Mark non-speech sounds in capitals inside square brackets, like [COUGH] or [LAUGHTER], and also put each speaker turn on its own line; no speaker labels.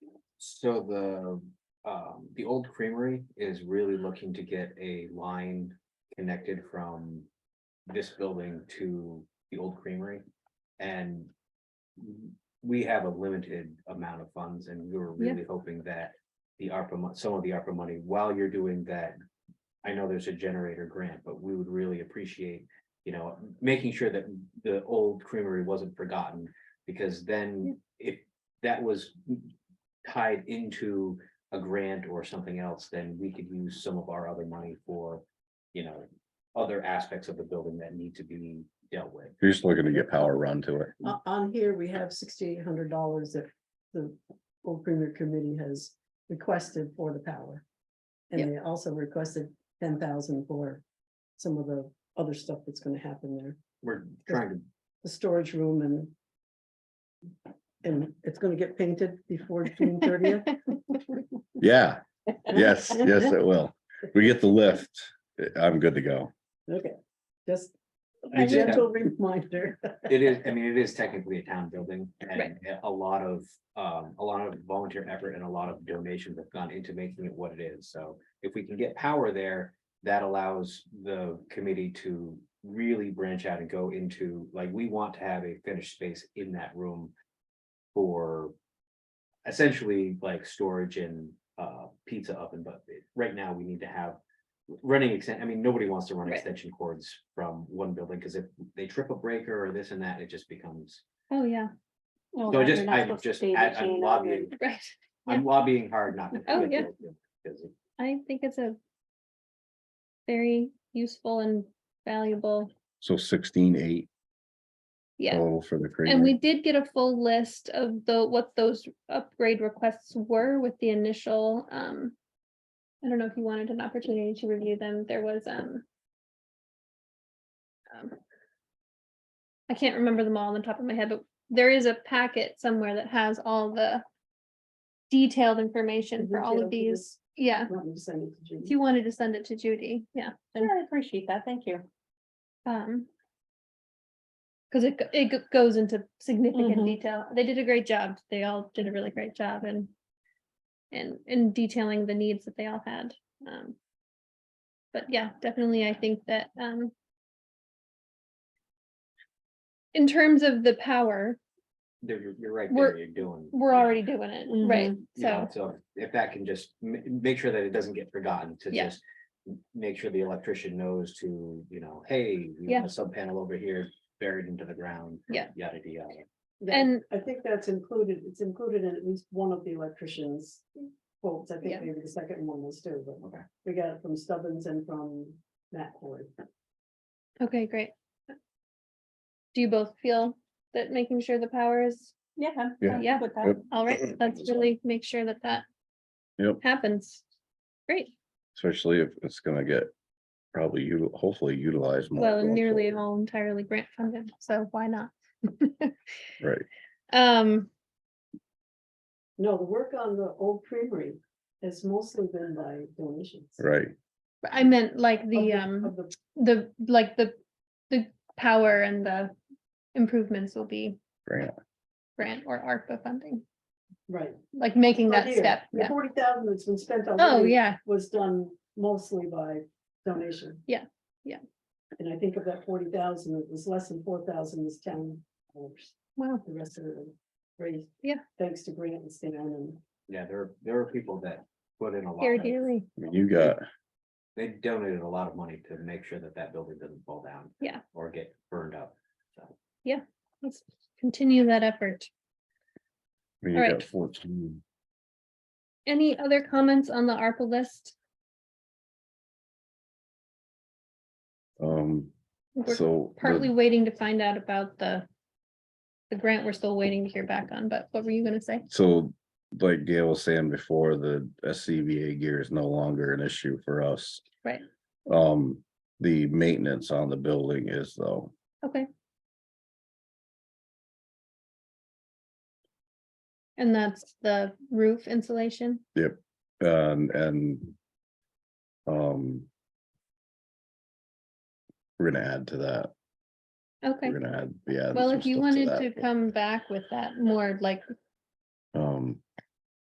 So the, um, the old creamery is really looking to get a line connected from this building to the old creamery. And we have a limited amount of funds and we were
Yeah.
really hoping that the ARPA, mon- some of the ARPA money, while you're doing that, I know there's a generator grant, but we would really appreciate, you know, making sure that the old creamery wasn't forgotten. Because then if that was tied into a grant or something else, then we could use some of our other money for, you know, other aspects of the building that need to be dealt with.
You're just looking to get power run to it.
Oh.
On, on here, we have sixty-eight hundred dollars that the old premier committee has requested for the power.
Yeah.
And they also requested ten thousand for some of the other stuff that's gonna happen there,
We're trying to,
the storage room and and it's gonna get painted
[LAUGHS]
before June thirtieth.
Yeah,
[LAUGHS]
yes, yes, it will. We get the lift. I'm good to go.
Okay, just
We
a
just have-
gentle reminder. [LAUGHS]
it is, I mean, it is technically a town building and
Right.
a lot of, um, a lot of volunteer effort and a lot of donations have gone into making it what it is. So if we can get power there, that allows the committee to really branch out and go into, like, we want to have a finished space in that room for essentially like storage and uh pizza oven, but right now we need to have running extent, I mean, nobody wants to run
Right.
extension cords from one building, because if they trip a breaker or this and that, it just becomes
Oh, yeah.
So I just, I'm just, I- I'm lobbying,
[LAUGHS] Right.
I'm lobbying hard not to.
Oh,
commit
yeah.
to it, Because it-
I think it's a very useful and valuable,
So sixteen eight
yeah.
total for the
And
creamery.
we did get a full list of the, what those upgrade requests were with the initial, um, I don't know if you wanted an opportunity to review them. There was, um, um, I can't remember them all on the top of my head, but there is a packet somewhere that has all the detailed information for all of
Detailed, yes.
these. Yeah.
Want me to send it to Judy?
If you wanted to send it to Judy, yeah, then,
I appreciate that. Thank you.
um. Cause it, go- it go- goes into significant
Mhm.
detail. They did a great job. They all did a really great job and. And in detailing the needs that they all had, um. But yeah, definitely, I think that, um. In terms of the power,
there- You're, you're right there,
We're-
you're doing.
we're
yeah,
already doing it, right?
you know,
So,
So if that can just ma- make sure that it doesn't get forgotten to
Yeah.
just. m- Make sure the electrician knows to, you know, hey, we
Yeah.
have a sub panel over here buried into the ground.
Yeah.
Yada, yada, yada.
That-
And-
I think that's included, it's included in at least one of the electricians quotes, I
Yeah.
think maybe the second one was too, but
Okay.
we got it from Stubbins and from Matt Ford.
okay, great. Do you both feel that making sure the power is
Yeah. I'm-
Yeah.
I'm
Yeah.
With that.
All
[CLEARS THROAT]
right, let's really make sure that that
Yep,
happens. Great,
especially if it's gonna get probably you, hopefully utilized. more
well,
going
nearly
forward.
all entirely grant funded, so why not? [LAUGHS]
Right,
Um,
No, the work on the old creamery has mostly been by donations.
right.
but I meant like
Of
the, um,
of the-
the, like the, the power and the improvements will be
Grant.
grant or ARPA funding,
Right.
like making
Oh,
that step,
The
yeah.
forty thousand that's been spent on.
Oh, yeah,
Was done mostly by donation.
Yeah, yeah.
And I think of that forty thousand, it was less than four thousand is town dollars.
wow,
the rest of it raised.
Yeah.
Thanks to Grant and Stan and
Yeah, there, are- there are people that put in a lot.
here
of-
dearly,
I mean, You got,
They donated a lot of money to make sure that that building doesn't fall down.
Yeah.
Or get burned up, so.
let's continue that effort.
I mean, you
Alright.
got fourteen.
Any other comments on the ARPA list?
Um,
We're
so. the-
partly waiting to find out about the the grant we're still waiting to hear back on, but what were you gonna say?
So like Gail was saying before, the SCBA gear is no longer an issue for us.
Right.
Um, the maintenance on the building is though,
Okay. And that's the roof insulation?
and, and. Um. We're gonna add to that.
Okay,
We're gonna add, yeah.
well, if you wanted to come back with that more like
Um,